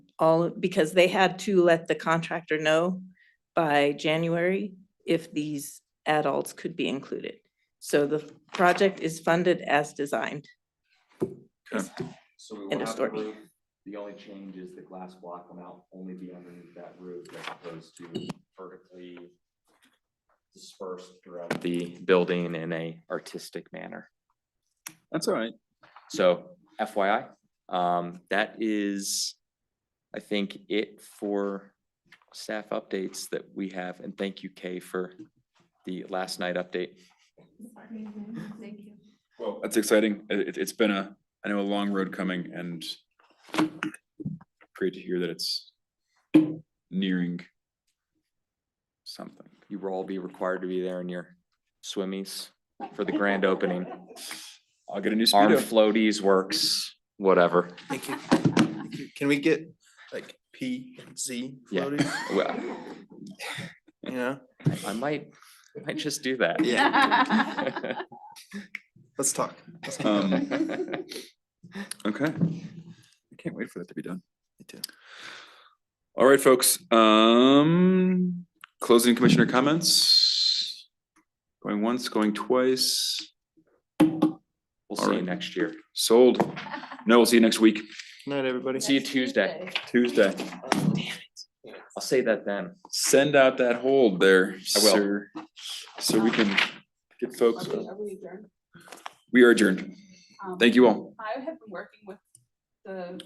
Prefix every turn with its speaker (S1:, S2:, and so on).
S1: all, because they had to let the contractor know by January if these adults could be included. So the project is funded as designed.
S2: So we
S1: End
S2: will
S1: of
S2: have the
S1: story.
S2: roof. The only change is the glass block will now only be underneath that roof as opposed to vertically dispersed throughout the building in a artistic manner.
S3: That's all right.
S2: So FYI, um, that is, I think, it for staff updates that we have. And thank you, Kay, for the last night update.
S3: Well, that's exciting. It, it- it's been a, I know a long road coming and great to hear that it's nearing something.
S2: You will all be required to be there in your swimmies for the grand opening.
S3: I'll get a new
S2: Arm
S3: speedo.
S2: floaties works, whatever.
S4: Thank you. Thank you. Can we get like P and Z
S2: Yeah.
S4: floaties?
S2: Well,
S4: You know,
S2: I- I might, I might just do that.
S5: Yeah.
S4: let's talk. Let's keep
S3: Um,
S4: going.
S3: Me Okay. I can't wait for that to be done.
S4: too.
S3: All right, folks, um, closing commissioner comments. Going once, going twice,
S2: We'll see you
S3: Alright.
S2: next year.
S3: sold. No, we'll see you next week,
S4: Good Night, everybody.
S2: See you Tuesday.
S3: Tuesday.
S2: I'll say that then.
S3: Send out that hold there,
S2: will.
S3: sir. So we can get folks, we are adjourned. Thank you all.
S5: I have been working with the